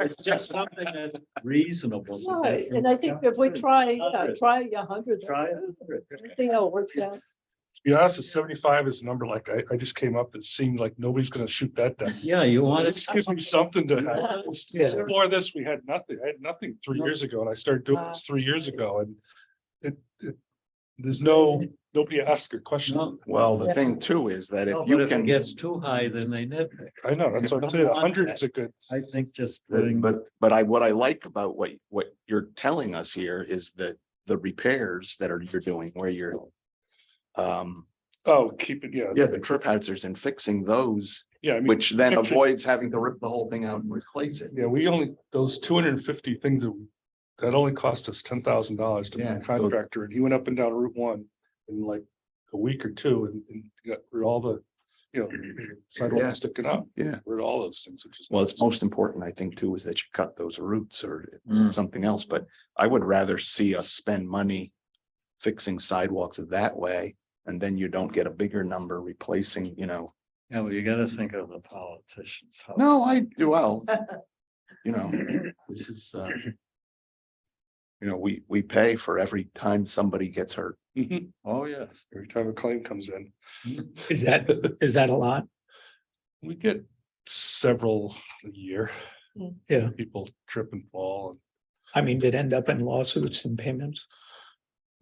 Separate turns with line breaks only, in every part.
It's just something that's reasonable. to
No,
measure.
and I think if we try, uh,
Hundred.
try a hundred.
Try a hundred.
I think how it works out.
To be honest, a seventy-five is a number like I, I just came up that seemed like nobody's gonna shoot that down.
Yeah, you want
This gives me something
Yeah.
to, before this, we had nothing, I had nothing three years ago and I started doing this three years ago and it, it, there's no, nobody asked a
No.
question.
Well,
Yeah.
the thing too is that if
But
you
if it
can,
gets too high, then they nitpick.
I know, that's what I'm saying, a hundred is a good,
I think just
the-
putting,
but, but I, what I like about what, what you're telling us here is that the repairs that are, you're doing where you're. Um,
oh, keep it, yeah,
yeah, the trip hazards and fixing those,
yeah, I mean,
which then
fix it.
avoids having to rip the whole thing out and replace it.
yeah, we only, those two hundred and fifty things that, that only cost us ten thousand dollars to
Yeah,
the
so-
contractor and he went up and down Route One in like a week or two and, and got rid of all the, you know,
Yeah.
sidewalks sticking up.
Yeah.
Rid of all those things, which is.
Well, it's most important, I think, too, is that you cut those roots or
Mm.
something else, but I would rather see us spend money. Fixing sidewalks that way, and then you don't get a bigger number replacing, you know,
yeah, well, you gotta think of the politicians. how-
no, I do well. You know, this is, uh. You know, we, we pay for every time somebody gets hurt.
Mhm.
Oh, yes.
Every time a claim comes in,
Is that, is that a lot?
we get several a year.
Mm.
Yeah.
People trip and fall. and
I mean, did it end up in lawsuits and payments?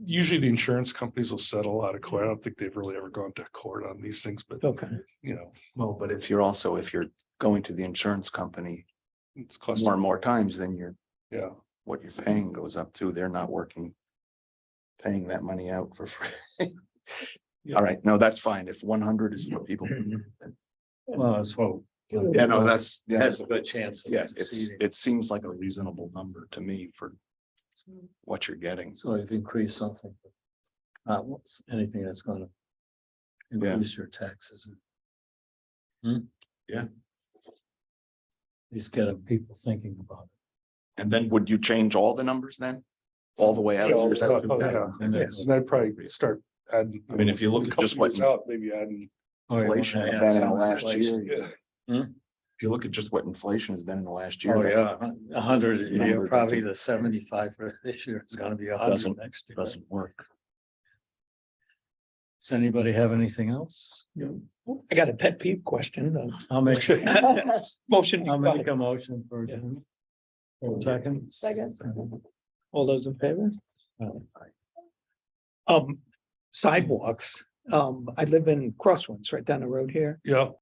Usually the insurance companies will settle out of court. I don't think they've really ever gone to court on these things, but
Okay,
you know,
Well, but if you're also, if you're going to the insurance company
it's costing.
more and more times, then you're,
Yeah,
what you're paying goes up too. They're not working. Paying that money out for free.
Yeah.
All right, no, that's fine. If one hundred is what people,
Well, that's what.
yeah, no, that's, yeah,
Has a good chance. of
yeah, it's,
succeeding.
it seems like a reasonable number to me for what you're getting.
So I've increased something. Uh, what's- anything that's gonna. Increase your taxes. Hmm?
Yeah.
These getting people thinking about
And then would you change all the numbers then? All the way out?
Yeah, all
or is
the
that
way out,
okay?
yeah.
it. And
Yeah,
that's-
so I'd probably start adding.
I mean, if you look at
couple
just what-
years out, Maybe adding,
Oh, you wanna
Inflation
add
then in
some
last
inflation.
year.
yeah,
If you look at just what inflation has been in the last year.
Oh,
that
yeah, a hun- a hundred, a year,
Number
probably
doesn't-
the seventy-five for this year is gonna be a hundred
Doesn't-
next year.
Doesn't work.
Does anybody have anything else?
I got a pet peeve question. uh,
I'll make,
Motion,
I'll make a motion for.
Yeah.
Second.
Second.
all those in favor? Um, sidewalks, um, I live in Crosswinds, right down the road here.
yeah,